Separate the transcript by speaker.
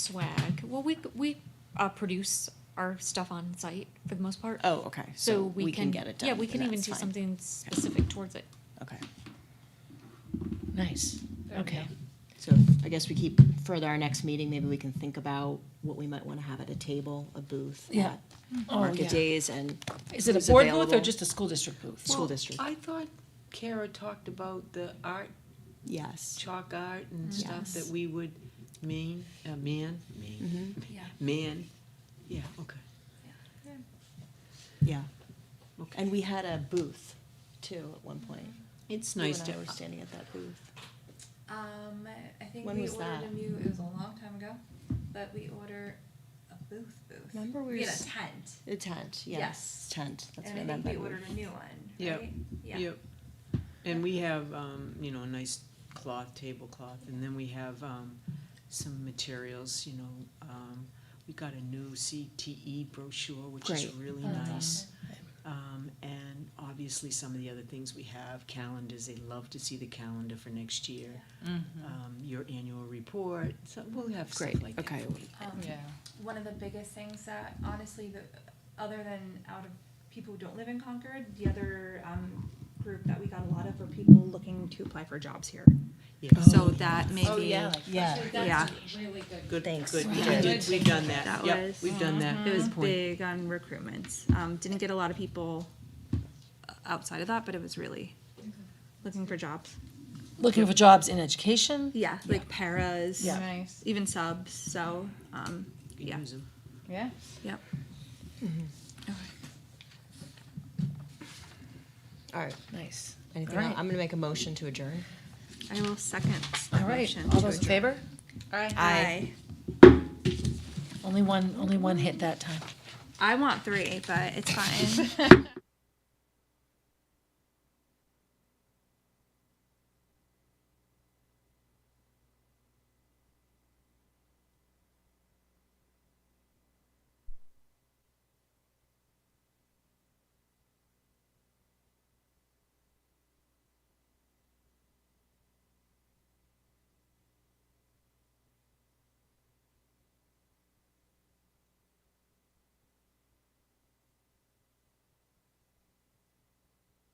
Speaker 1: swag. Well, we we uh, produce our stuff on site for the most part.
Speaker 2: Oh, okay.
Speaker 1: so, we, can,
Speaker 2: get it done.
Speaker 1: Yeah, we
Speaker 2: and
Speaker 1: can even
Speaker 2: that's
Speaker 1: do
Speaker 2: fine.
Speaker 1: something specific towards it.
Speaker 2: Okay.
Speaker 3: Nice, okay.
Speaker 2: So I guess we keep further our next meeting, maybe we can think about what we might want to have at a table, a booth.
Speaker 3: Oh, Yeah.
Speaker 2: at Market days and
Speaker 3: Is it
Speaker 2: who's
Speaker 3: a board booth or
Speaker 2: available.
Speaker 3: just a school district booth?
Speaker 2: Well- school district.
Speaker 4: I thought Kara talked about the art,
Speaker 2: Yes.
Speaker 4: chalk art and
Speaker 2: Mm. Yes.
Speaker 4: stuff that we would mean, uh, man, man,
Speaker 2: hmm
Speaker 3: Yeah.
Speaker 4: man, yeah, okay,
Speaker 2: yeah.
Speaker 4: okay.
Speaker 2: And we had a booth too at one point.
Speaker 4: It's nice to,
Speaker 2: You and I were standing at that booth.
Speaker 5: Um, I- I think
Speaker 2: When
Speaker 5: we
Speaker 2: was
Speaker 5: ordered
Speaker 2: that?
Speaker 5: a new. It was a long time ago, but we order a booth booth.
Speaker 2: Remember we
Speaker 5: we
Speaker 2: were
Speaker 5: had
Speaker 2: s-
Speaker 5: a tent,
Speaker 2: The tent, yes,
Speaker 5: Yes.
Speaker 2: tent, that's what I
Speaker 5: and I
Speaker 2: meant
Speaker 5: think
Speaker 2: by
Speaker 5: we
Speaker 2: booth.
Speaker 5: ordered a new one.
Speaker 4: Yep.
Speaker 5: Right? Yeah.
Speaker 4: yep. And we have, um, you know, a nice cloth, tablecloth, and then we have, um, some materials, you know, um, we got a new CTE brochure, which is
Speaker 2: Great.
Speaker 4: really
Speaker 5: Oh,
Speaker 4: nice. Um, and obviously some of the other things we have, calendars, they love to see the calendar for next year. um, your annual report, so we'll have stuff
Speaker 2: Mm-hmm. Great,
Speaker 4: like that.
Speaker 2: okay. Oh.
Speaker 4: for you.
Speaker 5: Um, One of the biggest things that honestly, the other than out of people who don't live in Concord, the other um, group that we got a lot of were people looking to apply for jobs here.
Speaker 4: Yeah.
Speaker 5: So that maybe
Speaker 3: Oh, Yeah.
Speaker 5: yeah.
Speaker 3: Really good.
Speaker 4: Good,
Speaker 2: Thanks.
Speaker 4: good, we
Speaker 3: Yeah.
Speaker 4: did, we've done that,
Speaker 5: That
Speaker 4: yep,
Speaker 5: was-
Speaker 4: we've done that.
Speaker 5: It was
Speaker 4: Good point.
Speaker 5: big on recruitments. Um, didn't get a lot of people uh, outside of that, but it was really looking for jobs.
Speaker 3: Looking for jobs in education?
Speaker 5: Yeah, like paras,
Speaker 3: Yeah.
Speaker 6: Nice.
Speaker 5: even subs. So, um,
Speaker 4: You can
Speaker 5: yeah.
Speaker 4: use 'em.
Speaker 6: Yeah.
Speaker 5: yep.
Speaker 2: All right,
Speaker 3: Nice.
Speaker 2: anything
Speaker 3: All
Speaker 2: else?
Speaker 3: right.
Speaker 2: I'm gonna make a motion to adjourn.
Speaker 5: I will second that
Speaker 3: All right,
Speaker 5: motion.
Speaker 3: all
Speaker 5: to
Speaker 3: those in favor?
Speaker 5: adjourn. Aye.
Speaker 3: Only one, only one hit that time.
Speaker 5: I want three, but it's fine.